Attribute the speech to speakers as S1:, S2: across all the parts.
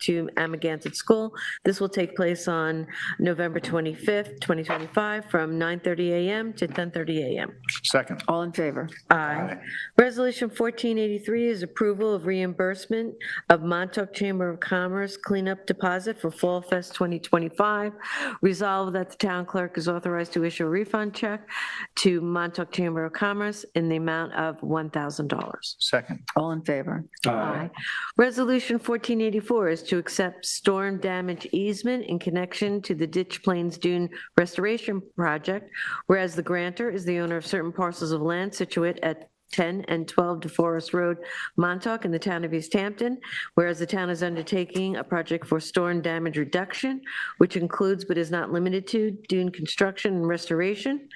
S1: to Amagansett School. This will take place on November 25th, 2025, from 9:30 a.m. to 10:30 a.m.
S2: Second.
S3: All in favor?
S1: Aye. Resolution 1483 is approval of reimbursement of Montauk Chamber of Commerce cleanup deposit for Fall Fest 2025. Resolved that the town clerk is authorized to issue a refund check to Montauk Chamber of Commerce in the amount of $1,000.
S2: Second.
S3: All in favor?
S1: Aye. Resolution 1484 is to accept storm damage easement in connection to the Ditch Plains Dune Restoration Project, whereas the grantor is the owner of certain parcels of land situate at 10 and 12 DeForest Road, Montauk, in the town of East Hampton, whereas the town is undertaking a project for storm damage reduction, which includes but is not limited to dune construction and restoration,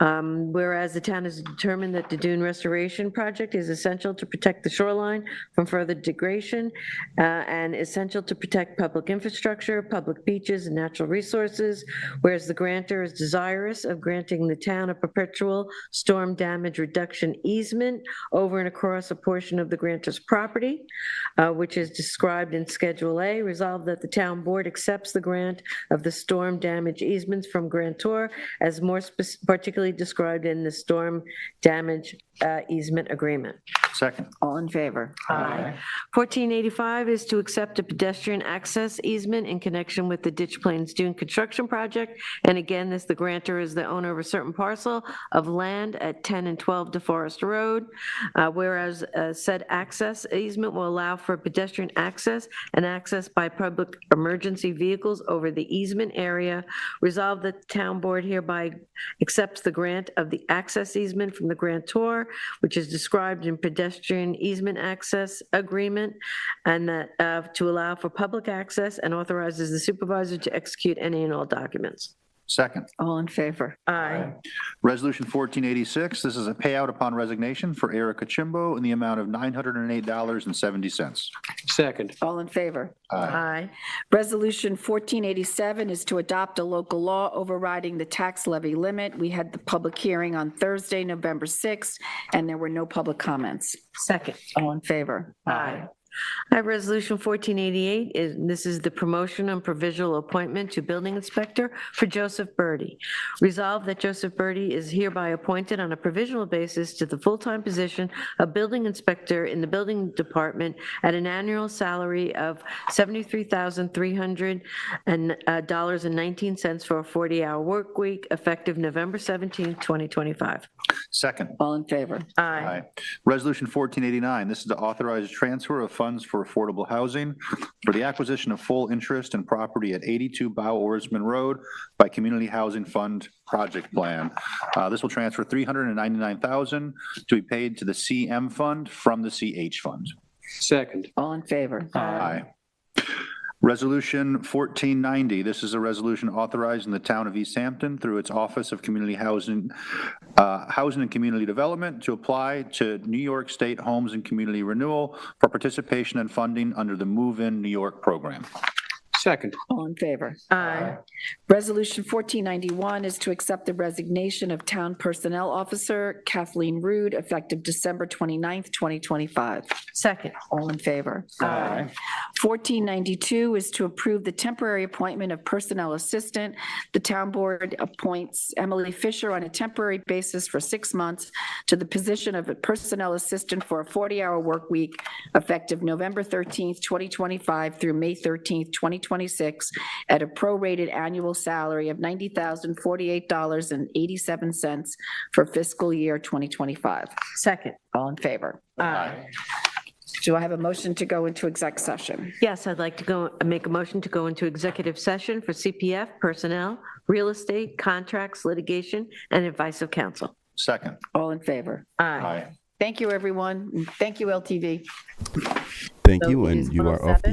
S1: um, Whereas the town has determined that the dune restoration project is essential to protect the shoreline from further degradation uh, and essential to protect public infrastructure, public beaches, and natural resources. Whereas the grantor is desirous of granting the town a perpetual storm damage reduction easement over and across a portion of the grantor's property, uh, which is described in Schedule A. Resolved that the town board accepts the grant of the storm damage easements from grantor as more spec- particularly described in the storm damage uh, easement agreement.
S2: Second.
S3: All in favor?
S1: 1485 is to accept a pedestrian access easement in connection with the Ditch Plains Dune Construction Project. And again, this, the grantor is the owner of a certain parcel of land at 10 and 12 DeForest Road, uh, whereas uh, said access easement will allow for pedestrian access and access by public emergency vehicles over the easement area. Resolved that the town board hereby accepts the grant of the access easement from the grantor, which is described in pedestrian easement access agreement, and that uh, to allow for public access and authorizes the supervisor to execute any and all documents.
S2: Second.
S3: All in favor?
S1: Aye.
S2: Resolution 1486, this is a payout upon resignation for Erica Chimbo in the amount of $908.70.
S4: Second.
S3: All in favor?
S1: Aye.
S3: Resolution 1487 is to adopt a local law overriding the tax levy limit. We had the public hearing on Thursday, November 6th, and there were no public comments.
S1: Second.
S3: All in favor?
S1: Aye. I have Resolution 1488, is- this is the promotion and provisional appointment to building inspector for Joseph Birdie. Resolved that Joseph Birdie is hereby appointed on a provisional basis to the full-time position of building inspector in the building department at an annual salary of uh, $73,300.19 for a 40-hour work week effective November 17, 2025.
S2: Second.
S3: All in favor?
S1: Aye.
S2: Resolution 1489, this is to authorize transfer of funds for affordable housing for the acquisition of full interest in property at 82 Bow Oarsman Road by Community Housing Fund Project Plan. Uh, This will transfer 399000 to be paid to the CM Fund from the CH Fund.
S4: Second.
S3: All in favor?
S2: Aye. Resolution 1490, this is a resolution authorizing the town of East Hampton through its Office of Community Housing, uh, Housing and Community Development to apply to New York State Homes and Community Renewal for participation and funding under the Move In New York program.
S4: Second.
S3: All in favor?
S1: Aye.
S3: Resolution 1491 is to accept the resignation of Town Personnel Officer Kathleen Rude, effective December 29th, 2025.
S1: Second.
S3: All in favor?
S1: Aye.
S3: 1492 is to approve the temporary appointment of Personnel Assistant. The Town Board appoints Emily Fisher on a temporary basis for six months to the position of a Personnel Assistant for a 40-hour work week effective November 13th, 2025 through May 13th, 2026, at a prorated annual salary of $90,048.87 for fiscal year 2025.
S1: Second.
S3: All in favor?
S1: Aye.
S3: Do I have a motion to go into exec session?
S1: Yes, I'd like to go, make a motion to go into executive session for CPF, personnel, real estate, contracts, litigation, and advice of counsel.
S2: Second.
S3: All in favor?
S1: Aye.
S3: Thank you, everyone. Thank you, LTV.
S5: Thank
S3: So
S5: you,
S3: it
S5: and
S3: is
S5: you are
S3: 107.
S5: off the